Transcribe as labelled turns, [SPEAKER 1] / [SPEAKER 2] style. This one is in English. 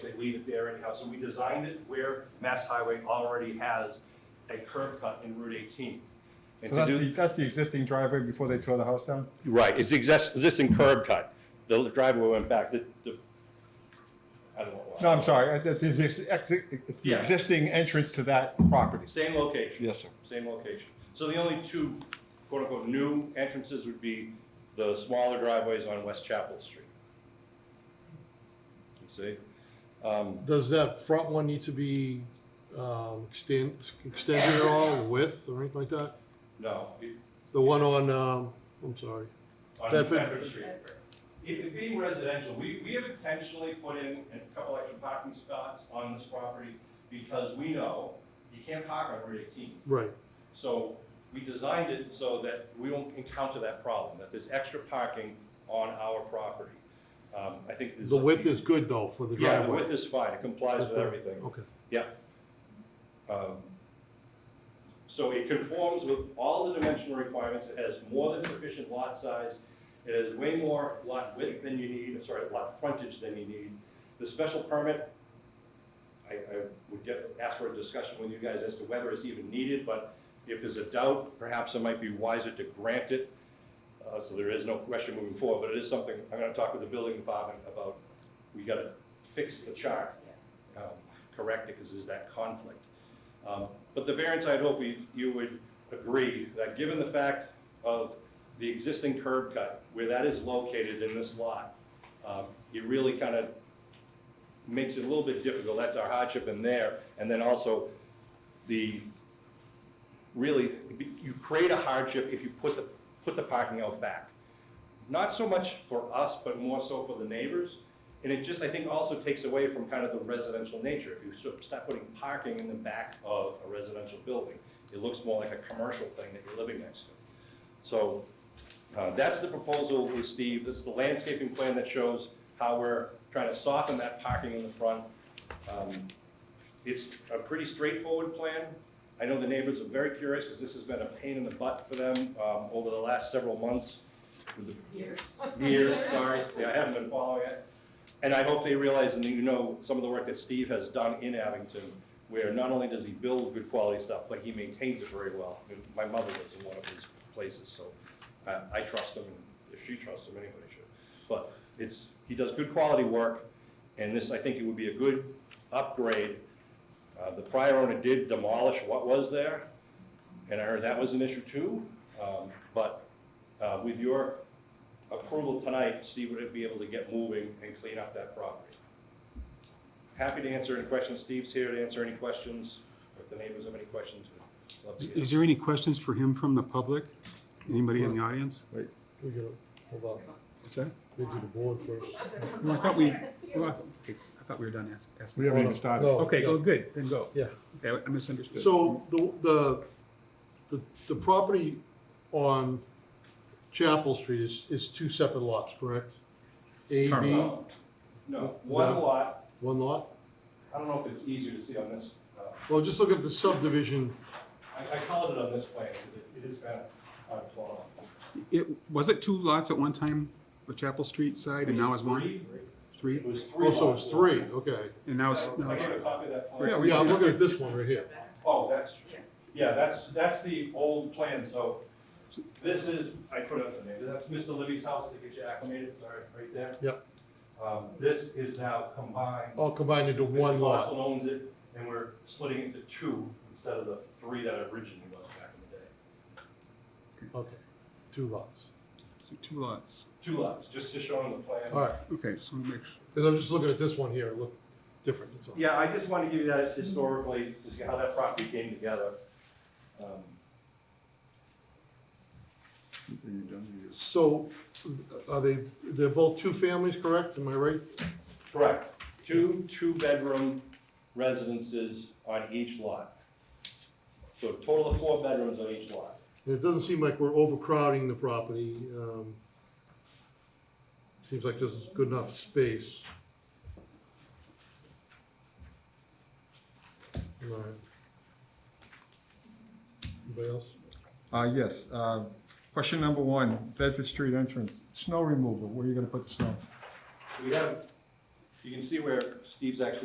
[SPEAKER 1] leave it there anyhow. So we designed it where Mass Highway already has a curb cut in Route 18. And
[SPEAKER 2] So
[SPEAKER 1] to
[SPEAKER 2] that's
[SPEAKER 1] do.
[SPEAKER 2] the, that's the existing driveway before they tore the house down?
[SPEAKER 1] Right, it's the exist- existing curb cut. The driveway went back, the, the, I don't know. why.
[SPEAKER 2] No, I'm sorry, uh, that's, the exi- exi- it's the
[SPEAKER 1] Yeah.
[SPEAKER 2] existing entrance to that property.
[SPEAKER 1] Same location.
[SPEAKER 2] Yes, sir.
[SPEAKER 1] Same location. So the only two quote-unquote new entrances would be the smaller driveways on West Chapel Street. You see? Um,
[SPEAKER 3] Does that front one need to be um, extend, extended at all, width or anything like that?
[SPEAKER 1] no, it-
[SPEAKER 3] The one on, um, I'm sorry.
[SPEAKER 1] on
[SPEAKER 3] Bedford.
[SPEAKER 1] Bedford Street. It it being residential, we, we have intentionally put in a couple extra parking spots on this property because we know you can't park on Route eighteen.
[SPEAKER 3] Right,
[SPEAKER 1] So we designed it so that we won't encounter that problem, that there's extra parking on our property. Um, I think this.
[SPEAKER 3] the width is good though for the
[SPEAKER 1] Yeah, the
[SPEAKER 3] driveway.
[SPEAKER 1] width is fine, it complies with everything.
[SPEAKER 3] Okay,
[SPEAKER 1] Yeah. Um, So it conforms with all the dimensional requirements, it has more than sufficient lot size, it has way more lot width than you need, sorry, lot frontage than you need. The special permit, I, I would get, ask for a discussion with you guys as to whether it's even needed, but if there's a doubt, perhaps it might be wiser to grant it. Uh, so there is no question moving forward, but it is something, I'm gonna talk with the building department about, we gotta fix the chart um, correct it because there's that conflict. Um, But the variance, I'd hope we- you would agree that given the fact of the existing curb cut, where that is located in this lot, um, it really kind of makes it a little bit difficult. That's our hardship in there. And then also, the, really, you create a hardship if you put the, put the parking out back not so much for us, but more so for the neighbors. And it just, I think, also takes away from kind of the residential nature. If you sort of start putting parking in the back of a residential building, it looks more like a commercial thing that you're living next to. So uh, that's the proposal with Steve. This is the landscaping plan that shows how we're trying to soften that parking in the front. Um, It's a pretty straightforward plan. I know the neighbors are very curious because this has been a pain in the butt for them um, over the last several months with the
[SPEAKER 4] Here.
[SPEAKER 1] years, sorry, yeah, I haven't been following it. And I hope they realize, and you know, some of the work that Steve has done in Abington, where not only does he build good quality stuff, but he maintains it very well. And My mother lives in one of his places, so I, I trust him, and if she trusts him, anybody should. But it's, he does good quality work, and this, I think it would be a good upgrade. Uh, the prior owner did demolish what was there, and I heard that was an issue too. Um, but, uh, with your approval tonight, Steve would be able to get moving and clean up that property. Happy to answer any questions. Steve's here to answer any questions. If the neighbors have any questions, we'd love to
[SPEAKER 5] Is-
[SPEAKER 1] hear.
[SPEAKER 5] Is there any questions for him from the public? Anybody in the audience?
[SPEAKER 2] Wait,
[SPEAKER 3] we gotta, hold on,
[SPEAKER 5] What's that?
[SPEAKER 3] we do the board first.
[SPEAKER 5] Well, I thought we, well, I thought- okay, I thought we were done ask-
[SPEAKER 2] we
[SPEAKER 5] asking.
[SPEAKER 2] haven't even started.
[SPEAKER 3] No.
[SPEAKER 5] Okay, go, good, then go.
[SPEAKER 3] Yeah.
[SPEAKER 5] Okay, I misunderstood.
[SPEAKER 3] So the, the, the, the property on Chapel Street is, is two separate lots, correct? A, B,
[SPEAKER 1] No, No, one
[SPEAKER 3] No.
[SPEAKER 1] lot,
[SPEAKER 3] one lot?
[SPEAKER 1] I don't know if it's easier to see on this, uh,
[SPEAKER 3] Well, just look at the subdivision,
[SPEAKER 1] I, I colored it on this plan, because it- it is kind of hard to follow.
[SPEAKER 5] It, was it two lots at one time, the Chapel Street side, and now it's one?
[SPEAKER 1] Three? It
[SPEAKER 5] Three?
[SPEAKER 1] was three.
[SPEAKER 3] oh, so
[SPEAKER 1] lots.
[SPEAKER 3] it's three, okay.
[SPEAKER 5] And now it's, now
[SPEAKER 1] I
[SPEAKER 5] it's,
[SPEAKER 1] gave a copy of that
[SPEAKER 5] Yeah,
[SPEAKER 1] plan.
[SPEAKER 5] we-
[SPEAKER 3] Yeah, I'm looking at this one right here.
[SPEAKER 1] Oh, that's, yeah, that's, that's the old plan, so this is, I put up the name, that's Mr. Libby's house to get you acclimated, sorry, right there.
[SPEAKER 3] Yep.
[SPEAKER 1] Um, this is now combined.
[SPEAKER 3] All combined into one
[SPEAKER 1] Mr.
[SPEAKER 3] lot.
[SPEAKER 1] Carlson owns it, and we're splitting it into two instead of the three that it originally was back in the day.
[SPEAKER 3] Okay, two lots.
[SPEAKER 5] two lots.
[SPEAKER 1] Two lots, just to show him the plan.
[SPEAKER 3] All right,
[SPEAKER 5] Okay, just want to make sure.
[SPEAKER 3] because I'm just looking at this one here, it looked different, that's all.
[SPEAKER 1] Yeah, I just wanted to give you that historically, to see how that property came together. Um,
[SPEAKER 3] So are they, they're both two families, correct? Am I right?
[SPEAKER 1] Correct. Two two-bedroom residences on each lot. So a total of four bedrooms on each lot.
[SPEAKER 3] And it doesn't seem like we're overcrowding the property. um, Seems like this is good enough space. All right. Anybody else?
[SPEAKER 2] Uh, yes, uh, question number one, Bedford Street entrance, snow removal, where are you gonna put the snow?
[SPEAKER 1] We have, you can see where Steve's actually